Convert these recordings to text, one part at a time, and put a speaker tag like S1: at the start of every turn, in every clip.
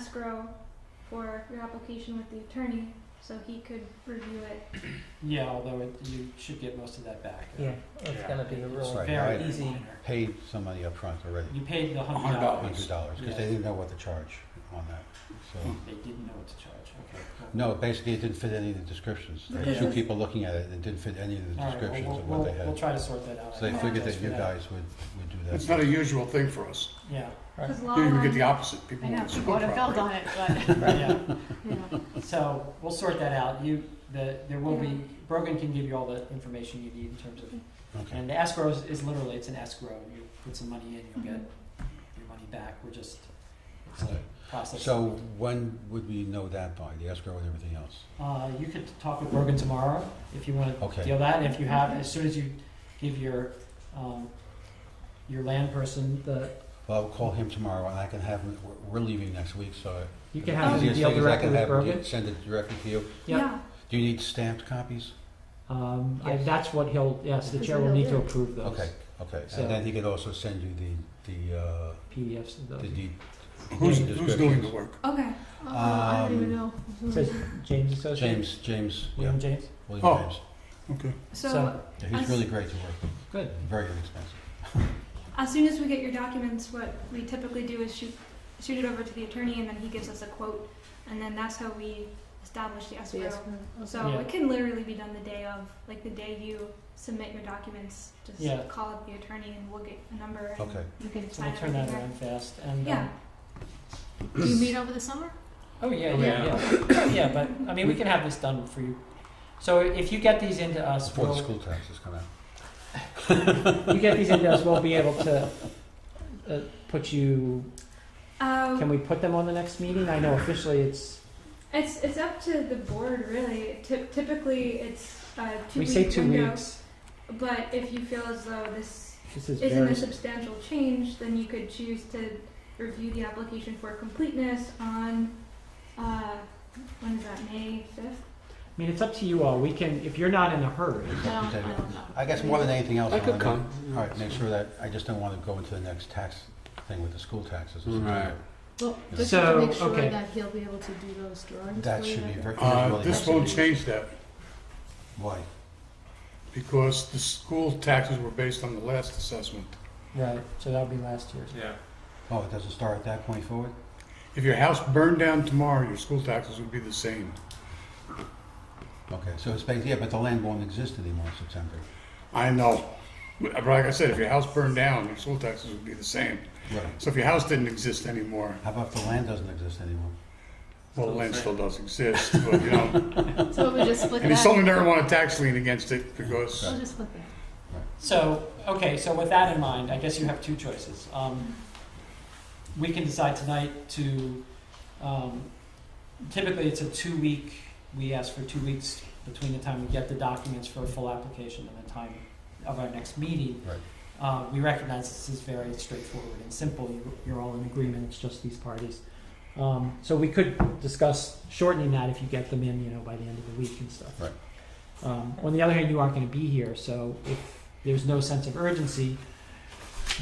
S1: escrow for your application with the attorney, so he could review it.
S2: Yeah, although it, you should get most of that back.
S3: Yeah, it's
S4: Yeah.
S3: gonna be a
S2: It's
S3: really,
S5: Right.
S2: very
S5: I-
S2: easy.
S5: paid somebody up front already,
S2: You paid the hundred
S4: Hundred
S2: dollars.
S5: hundred dollars, because they
S2: Yeah.
S5: didn't know what to charge on that, so.
S2: They didn't know what to charge, okay. cool.
S5: No, basically it didn't fit any of the descriptions. There were
S1: Because
S5: two
S1: it's-
S5: people looking at it, and it didn't fit any of the
S2: All right, well,
S5: descriptions
S2: we'll-
S5: of what they
S2: We'll, we'll
S5: had.
S2: try to sort that out.
S5: So they
S2: I
S5: figured
S2: apologize
S5: that
S2: for
S5: you guys would, would do that.
S4: It's not a usual thing for us.
S2: Yeah,
S3: right,
S1: 'Cause law
S4: You even get
S1: line-
S4: the opposite, people
S6: I know,
S4: want to
S6: people would have felt on it, but,
S2: yeah.
S6: you know.
S2: So we'll sort that out. You, the, there will be, Brogan can give you all the information you need in terms of,
S5: Okay,
S2: and the escrow is, is literally, it's an escrow. You put some money in, you'll get your money back. We're just, it's a
S5: Okay.
S2: process.
S5: so when would we know that by, the escrow and everything else?
S2: Uh, you could talk with Brogan tomorrow if you want to
S5: Okay.
S2: deal that. And if you have, as soon as you give your, um, your land person the,
S5: Well, I'll call him tomorrow, and I can have him, we're- we're leaving next week, so.
S3: you can
S5: the
S3: have them
S5: easiest
S3: deal
S5: thing is I
S3: directly
S5: can
S3: with
S5: have him
S3: Brogan.
S5: do- Send it directly to you.
S3: Yeah.
S1: Yeah,
S5: Do you need stamped copies?
S3: Um, I,
S2: Yes.
S3: that's what he'll, yes, the
S1: Because
S3: chair
S1: they
S3: will
S1: don't
S3: need to
S1: do it.
S3: approve those
S5: Okay, okay,
S3: So-
S5: and then he could also send you the, the, uh,
S3: PDFs of those.
S5: the deed.
S4: Who's,
S5: deed
S4: who's doing the
S5: descriptions.
S4: work?
S1: okay. Uh, I don't even know.
S3: Says James Associates?
S5: James, James, yeah,
S3: William James?
S5: William
S4: Oh.
S5: James.
S4: Okay.
S1: So
S3: So-
S5: Yeah, He's
S1: Us-
S5: really great to work with,
S3: Good.
S5: very inexpensive.
S1: as soon as we get your documents, what we typically do is shoot, shoot it over to the attorney and then he gives us a quote. And then that's how we establish the escrow. So
S2: Yeah.
S1: it can literally be done the day of, like the day you submit your documents, just
S2: Yeah.
S1: call up the attorney and we'll get a number. and
S5: Okay.
S1: You can
S2: so we'll
S1: sign
S2: turn that
S1: everything there.
S2: around fast. And, um,
S1: Yeah.
S6: Do you meet over the summer?
S2: Oh yeah,
S6: Yeah.
S2: yeah, yeah. yeah, but I mean, we can have this done for you. So if you get these into us,
S5: Before the
S2: we'll,
S5: school taxes come out.
S3: You get these into us, we'll be able to, uh, put you,
S1: Um,
S3: can we put them on the next meeting? I know officially it's,
S1: It's it's up to the board really. Ty- typically, it's a two
S3: we
S1: week
S3: say two
S1: window,
S3: weeks.
S1: But if you feel as though this
S3: This is
S1: isn't a
S3: very,
S1: substantial change, then you could choose to review the application for completeness on uh, when is that May fifth?
S3: I mean, it's up to you all. We can, if you're not in a hurry,
S6: I don't, I don't know.
S5: I guess more than anything else, I
S4: I could
S5: want to,
S4: come.
S5: all right, make sure that, I just don't want to go into the next tax thing with the school taxes. in
S4: Right.
S5: September.
S6: Well,
S5: just
S3: So, to make sure okay.
S6: that he'll be able to do those drawings.
S5: That should be very. that
S4: Uh,
S5: really has
S4: this
S5: to
S4: won't
S5: be-
S4: change that,
S5: Why?
S4: because the school taxes were based on the last assessment.
S2: right. So that'll be last year's.
S4: Yeah.
S5: Oh, it doesn't start at that point forward?
S4: If your house burned down tomorrow, your school taxes would be the same.
S5: Okay, so it's basically, yeah, but the land won't exist anymore in September.
S4: I know. But like I said, if your house burned down, your school taxes would be the same.
S5: Right.
S4: So if your house didn't exist anymore,
S5: How about if the land doesn't exist anymore?
S4: well, the land still does exist, but you know.
S6: So we just split
S4: And you
S6: that,
S4: certainly never want a tax lien against it because.
S6: we'll just split that.
S2: So okay, so with that in mind, I guess you have two choices. Um, we can decide tonight to. Um, typically, it's a two-week. We ask for two weeks between the time we get the documents for a full application and the time of our next meeting.
S5: Right.
S2: Uh, we recognize this is very straightforward and simple. You, you're all in agreement. It's just these parties.
S3: Um, so we could discuss shortening that if you get them in, you know, by the end of the week and stuff.
S5: Right.
S3: Um, on the other hand, you aren't going to be here, so if there's no sense of urgency,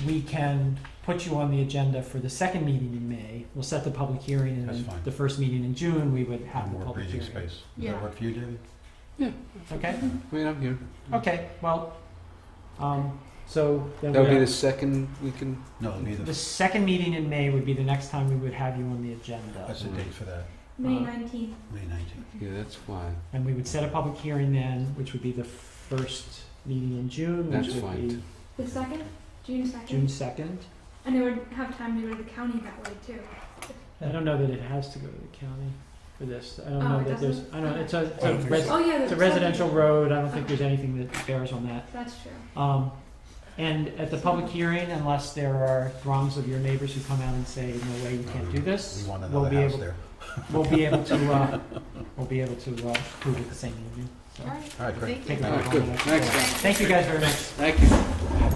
S3: we can put you on the agenda for the second meeting in May. We'll set the public hearing, and
S5: That's
S3: then
S5: fine.
S3: the first meeting in June, we would have the
S5: More
S3: public
S5: breathing
S3: hearing.
S5: space. Does
S6: Yeah.
S5: that work for you, David?
S3: Okay.
S4: I mean, I'm here.
S3: Okay. Well, um, so then
S2: That would
S3: we
S2: be
S3: have-
S2: the
S4: second we can.
S5: No, it'll be the,
S3: the second meeting in May would be the next time we would have you on the agenda.
S5: that's the date for that,
S1: May
S3: Uh,
S1: nineteenth.
S5: May nineteenth.
S4: Yeah, that's fine.
S3: And we would set a public hearing then, which would be the first meeting in June, which
S4: That's
S3: would
S4: fine,
S3: be
S1: The second, June
S3: June
S1: second,
S3: second.
S1: and it would have time to go to the county that way too.
S3: I don't know that it has to go to the county for this. I don't
S1: Oh,
S3: know
S1: it
S3: that there's,
S1: doesn't?
S3: I don't, it's a, it's
S4: I
S3: a
S4: don't think
S3: res-
S4: so.
S1: Oh yeah,
S3: it's a
S1: the
S3: residential
S1: second.
S3: road. I don't think there's anything that bears on that.
S1: That's true.
S3: Um, and at the public hearing, unless there are throngs of your neighbors who come out and say, no way, you can't do
S5: We
S3: this,
S5: want
S3: we'll
S5: another
S3: be
S5: house
S3: able,
S5: there.
S3: we'll be able to, uh, we'll be able to, uh, prove it the same evening. So,
S6: All right,
S5: All right, great.
S6: thank
S3: take
S6: you.
S3: a
S5: All
S3: vote
S5: right,
S3: on
S4: good.
S3: that.
S4: Thanks, guys.
S3: Thank you guys very much.
S4: Thank you.
S1: um,